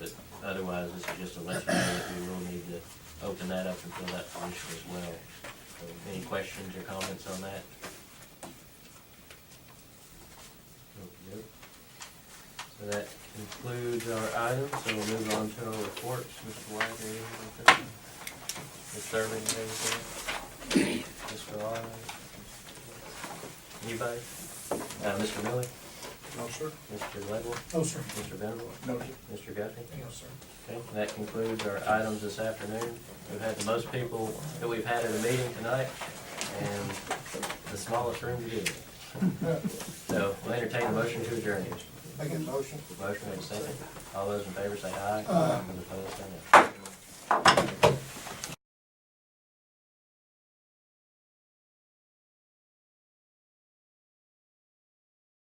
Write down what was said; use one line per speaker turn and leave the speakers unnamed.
Otherwise, this is just to let you know that we will need to open that up and fill that position as well. So, Any questions or comments on that? Okey-doke. So that concludes our items, so we'll move on to our reports. Mr. White, anything like that? Ms. Serving, anything? Mr. Arnold? Anybody? Uh, Mr. Miller?
No, sir.
Mr. Ledwell?
No, sir.
Mr. Venable?
No, sir.
Mr. Guthrie?
No, sir.
Okay, that concludes our items this afternoon. We've had the most people that we've had at a meeting tonight, and the smallest room to do it. So we'll entertain a motion to adjourn.
Make a motion.
Motion and a second. All those in favor say aye. Those opposed, say no.